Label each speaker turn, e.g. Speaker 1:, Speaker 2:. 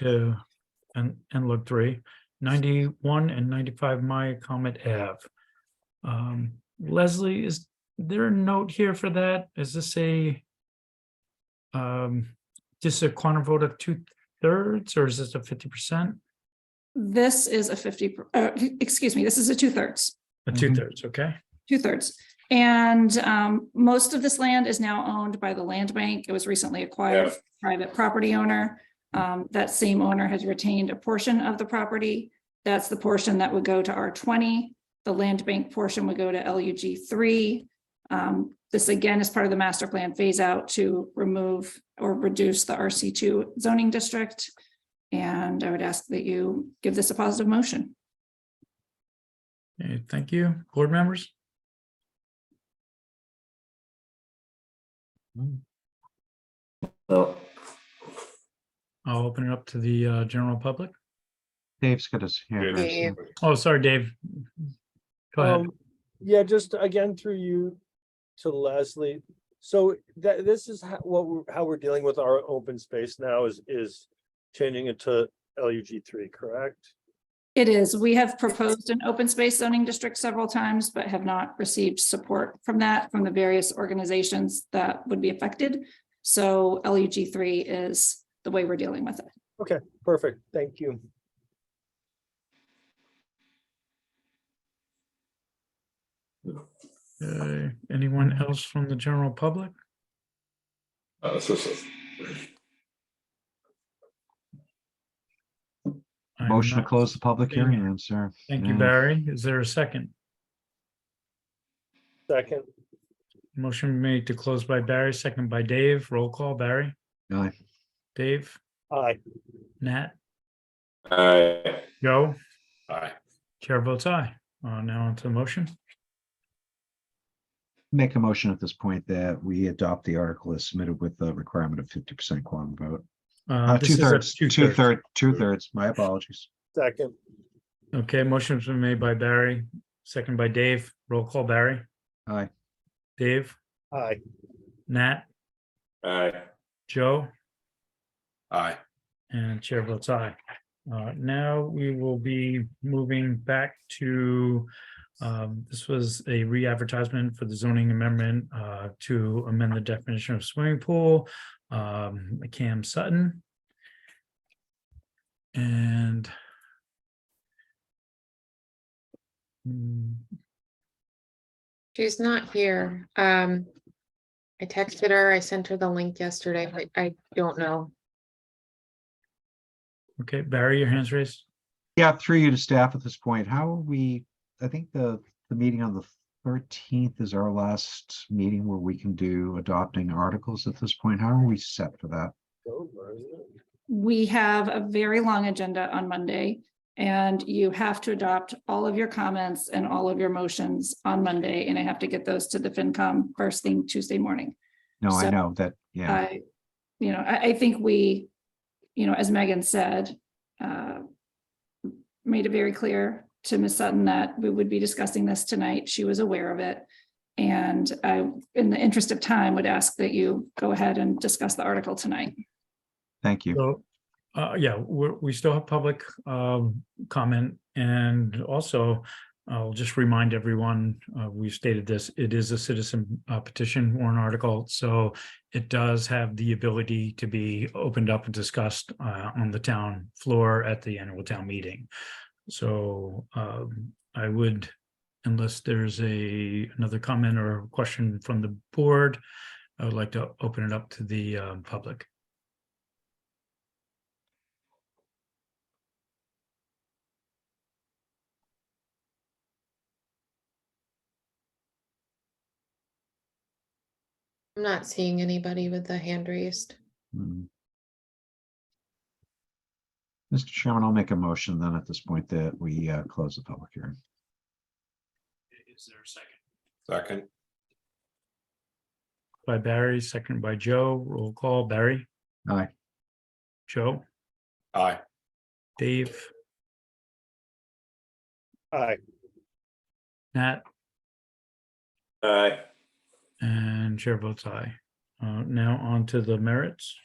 Speaker 1: to, and, and look three, 91 and ninety-five Maya Comet Ave. Um, Leslie, is there a note here for that? Is this a um, just a quantum vote of two thirds, or is this a fifty percent?
Speaker 2: This is a fifty, per- uh, excuse me, this is a two thirds,
Speaker 1: A
Speaker 3: Mhm.
Speaker 1: two thirds, okay?
Speaker 2: two thirds. And um, most of this land is now owned by the land bank. It was recently acquired from a private property owner. Um, that same owner has retained a portion of the property. That's the portion that would go to R twenty. The land bank portion would go to LUG three. Um, this again is part of the master plan phase out to remove or reduce the RC two zoning district. And I would ask that you give this a positive motion.
Speaker 1: Okay, Thank you, board members.
Speaker 4: Well,
Speaker 1: I'll open it up to the uh, general public.
Speaker 3: Dave's got us here.
Speaker 5: Dave.
Speaker 3: first.
Speaker 1: Oh, sorry, Dave. Go ahead.
Speaker 6: Um, Yeah, just again through you to Leslie. So that, this is how, what, we're- how we're dealing with our open space now is, is changing it to LUG three, correct?
Speaker 2: It is. We have proposed an open space zoning district several times, but have not received support from that, from the various organizations that would be affected. So LUG three is the way we're dealing with it.
Speaker 6: Okay, perfect. Thank you.
Speaker 1: Uh, Anyone else from the general public?
Speaker 5: Uh, That's just a-
Speaker 1: I'm
Speaker 3: Motion to
Speaker 1: not-
Speaker 3: close the public
Speaker 1: seeing
Speaker 3: hearing,
Speaker 1: it.
Speaker 3: I'm sorry.
Speaker 1: Thank you,
Speaker 3: Yeah.
Speaker 1: Barry. Is there a second?
Speaker 6: Second,
Speaker 1: Motion made to close by Barry, second by Dave. Roll call, Barry,
Speaker 3: Aye.
Speaker 1: Dave,
Speaker 6: aye.
Speaker 1: Nat,
Speaker 5: Aye.
Speaker 1: Joe,
Speaker 5: Aye.
Speaker 1: chair votes aye. Uh, Now onto the motion.
Speaker 3: Make a motion at this point that we adopt the article as submitted with the requirement of fifty percent quorum vote.
Speaker 1: Uh,
Speaker 3: Uh,
Speaker 1: this
Speaker 3: two
Speaker 1: is a
Speaker 3: thirds, two
Speaker 1: two-thirds.
Speaker 3: third, two thirds, my apologies.
Speaker 6: Second,
Speaker 1: Okay, motion's been made by Barry, second by Dave. Roll call, Barry,
Speaker 3: Aye.
Speaker 1: Dave,
Speaker 6: aye.
Speaker 1: Nat,
Speaker 5: Aye.
Speaker 1: Joe,
Speaker 5: Aye.
Speaker 1: and chair votes aye. Uh, Now we will be moving back to, um, this was a re-advertisement for the zoning amendment uh, to amend the definition of swimming pool, um, Cam Sutton. And Hmm,
Speaker 7: She's not here. Um, I texted her, I sent her the link yesterday. I, I don't know.
Speaker 1: okay, Barry, your hands raised.
Speaker 3: Yeah, through you to staff at this point, how are we, I think the, the meeting on the thirteenth is our last meeting where we can do adopting articles at this point. How are we set for that?
Speaker 6: Over, isn't it?
Speaker 2: We have a very long agenda on Monday and you have to adopt all of your comments and all of your motions on Monday. And I have to get those to the FinCom first thing Tuesday morning.
Speaker 3: No, I
Speaker 2: So,
Speaker 3: know that, yeah,
Speaker 2: I, you know, I, I think we, you know, as Megan said, uh, made it very clear to Ms. Sutton that we would be discussing this tonight. She was aware of it. And I, in the interest of time, would ask that you go ahead and discuss the article tonight.
Speaker 3: thank you.
Speaker 1: So, uh, yeah, we're, we still have public, um, comment and also I'll just remind everyone, uh, we've stated this, it is a citizen uh, petition warrant article. So it does have the ability to be opened up and discussed, uh, on the town floor at the annual town meeting. So, um, I would, unless there's a, another comment or question from the board, I would like to open it up to the, um, public.
Speaker 7: I'm not seeing anybody with the hand raised.
Speaker 3: Hmm. Mr. Chairman, I'll make a motion then at this point that we uh, close the public hearing.
Speaker 1: Is there a second?
Speaker 5: Second.
Speaker 1: By Barry, second by Joe, roll call, Barry,
Speaker 3: Aye.
Speaker 1: Joe,
Speaker 5: Aye.
Speaker 1: Dave,
Speaker 6: Aye,
Speaker 1: Nat,
Speaker 5: Aye.
Speaker 1: and chair votes aye. Uh, now on to the merits.